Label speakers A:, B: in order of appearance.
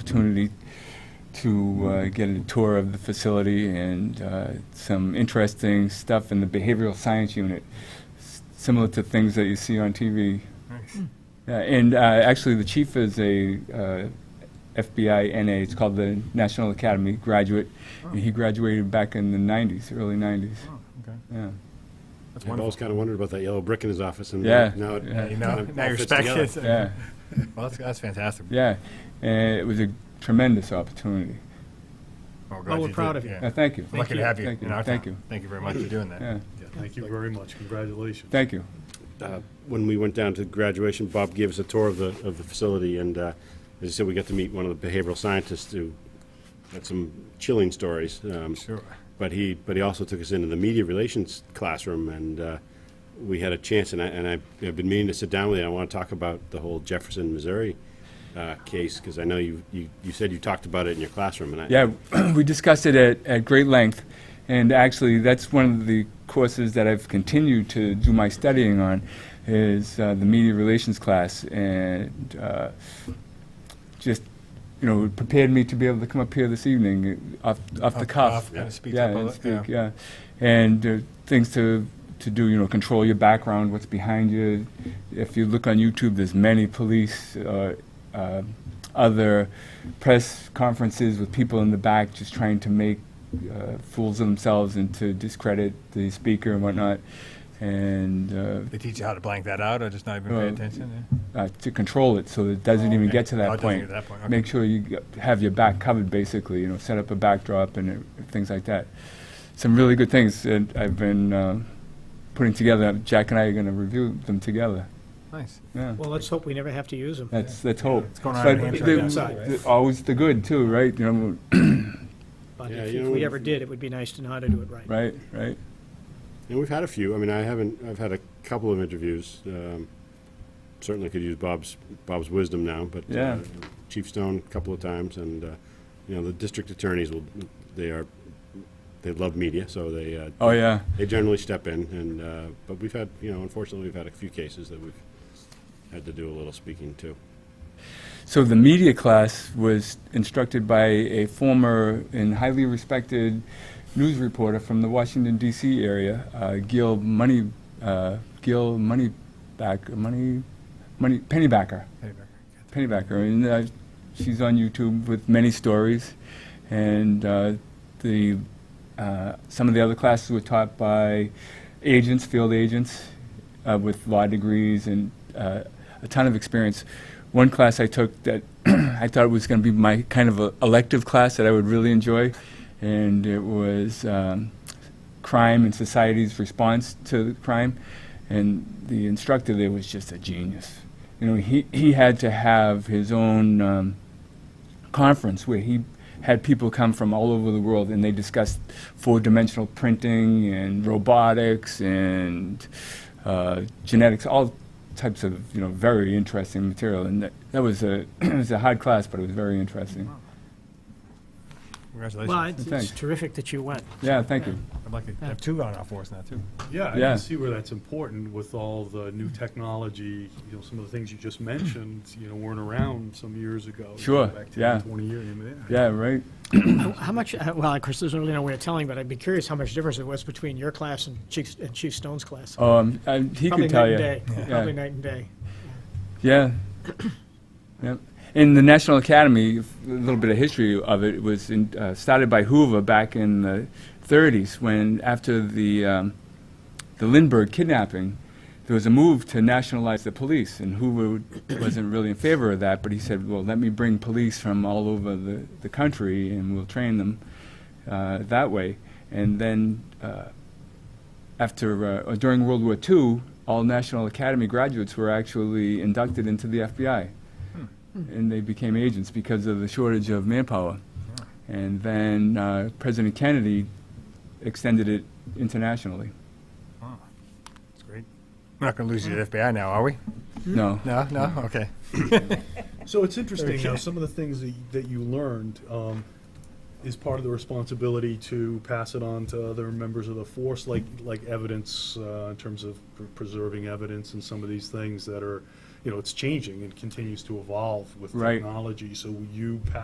A: opportunity to uh, get a tour of the facility and uh, some interesting stuff in the behavioral science unit, s- similar to things that you see on TV. Uh, and uh, actually, the chief is a uh, FBI NA. It's called the National Academy graduate, and he graduated back in the '90s, early '90s.
B: Oh, Okay.
A: Yeah.
B: That's
C: I've always
B: wonderful.
C: kind of wondered about that yellow brick in his office, and
A: Yeah.
C: now it
A: Yeah.
B: You know,
C: kind of
B: now
C: all
B: you're
C: fits together.
B: speculating.
A: Yeah.
B: Well, that's, that's fantastic.
A: Yeah, and it was a tremendous opportunity.
B: Well,
D: Well, we're proud of you.
A: Uh, thank you.
B: Lucky to have you
A: Thank you.
B: in our
A: Thank
B: town.
A: you.
B: Thank you very much for doing
A: Yeah,
B: that.
D: Yeah, Thank you very much. Congratulations.
A: thank you.
C: Uh, When we went down to graduation, Bob gave us a tour of the, of the facility, and uh, as I said, we got to meet one of the behavioral scientists who had some chilling stories. um,
B: Sure.
C: But he, but he also took us into the media relations classroom, and uh, we had a chance, and I, and I- I've been meaning to sit down with you, and I want to talk about the whole Jefferson, Missouri uh, case, because I know you, you you said you talked about it in your classroom, and I.
A: Yeah, we discussed it at, at great length, and actually, that's one of the courses that I've continued to do my studying on, is uh, the media relations class, and uh, just, you know, it prepared me to be able to come up here this evening, uh, off, off the cuff.
B: Kind of speak
A: Yeah,
B: up a
A: and
B: little.
A: speak, yeah. And uh, things to, to do, you know, control your background, what's behind you. If you look on YouTube, there's many police, uh, uh, other press conferences with people in the back just trying to make uh, fools of themselves and to discredit the speaker and whatnot. And uh,
B: They teach you how to blank that out or just not even pay
A: Well,
B: attention?
A: uh, to control it so that it doesn't even get to
B: Oh,
A: that
B: it doesn't
A: point.
B: get to that point, okay.
A: Make sure you g- have your back covered, basically, you know, set up a backdrop and uh, things like that. Some really good things that I've been uh, putting together. Jack and I are going to review them together.
B: Nice.
A: Yeah.
D: Well, let's hope we never have to use them.
A: That's, that's hope.
B: It's going on
A: But
B: in Hampshire
A: the-
B: now.
A: the- Always the good, too, right? You know,
D: But
C: Yeah,
D: if
C: you
D: if
C: know-
D: we ever did, it would be nice to know how to do it right.
A: right, right.
C: And we've had a few. I mean, I haven't. I've had a couple of interviews. Um, certainly could use Bob's Bob's wisdom now, but uh,
A: Yeah.
C: Chief Stone a couple of times, and uh, you know the district attorneys will. They are. They love media, so they. Uh,
A: Oh, yeah.
C: They generally step in, and uh, but we've had you know unfortunately we've had a few cases that we've had to do a little speaking to.
A: So the media class was instructed by a former and highly respected news reporter from the Washington D.C. area, uh, Gil Money, uh, Gil Moneyback, Money, Money Pennybacker,
B: Anyway.
A: Pennybacker, and uh, she's on YouTube with many stories, and uh, the uh, some of the other classes were taught by agents, field agents, uh, with law degrees and uh, a ton of experience. One class I took that I thought was going to be my kind of a elective class that I would really enjoy, and it was um, crime and society's response to crime. And the instructor there was just a genius. You know, he, he had to have his own um, conference where he had people come from all over the world and they discussed four-dimensional printing and robotics and uh, genetics, all types of you know very interesting material. And that, that was a it was a hard class, but it was very interesting.
D: Well,
B: Congratulations.
D: it's
A: Thanks.
D: it's terrific that you went.
A: Yeah, thank you.
B: I'd like to have two on our force now, too.
E: Yeah, I
A: Yeah.
E: can see where that's important with all the new technology, you know, some of the things you just mentioned, you know, weren't around some years ago. You go
A: Sure,
E: back 10,
A: yeah.
E: Twenty years, I mean,
A: Yeah,
E: yeah.
A: right.
D: How how much, uh, well, of course, there's really no way of telling, but I'd be curious how much difference it was between your class and Chief, and Chief Stone's class.
A: Um, I, he
D: Probably
A: could tell
D: night
A: you.
D: and day. Probably
A: Yeah.
D: night and day.
A: Yeah. Yep. In the National Academy, f- a little bit of history of it was in, uh, started by Hoover back in the 30s when, after the, um, the Lindbergh kidnapping, there was a move to nationalize the police, and Hoover wasn't really in favor of that, but he said, well, let me bring police from all over the, the country and we'll train them uh, that way. And then uh, after uh, or during World War II, all National Academy graduates were actually inducted into the FBI, and they became agents because of the shortage of manpower. And then uh, President Kennedy extended it internationally.
B: It's great. We're not going to lose you to the FBI now, are we?
A: No,
B: No, no? Okay.
E: So it's interesting how some of the things that, y- that you learned, um, is part of the responsibility to pass it on to other members of the force, like, like evidence, uh, in terms of pr- preserving evidence and some of these things that are, you know, it's changing and continues to evolve with
A: Right.
E: technology. So you pass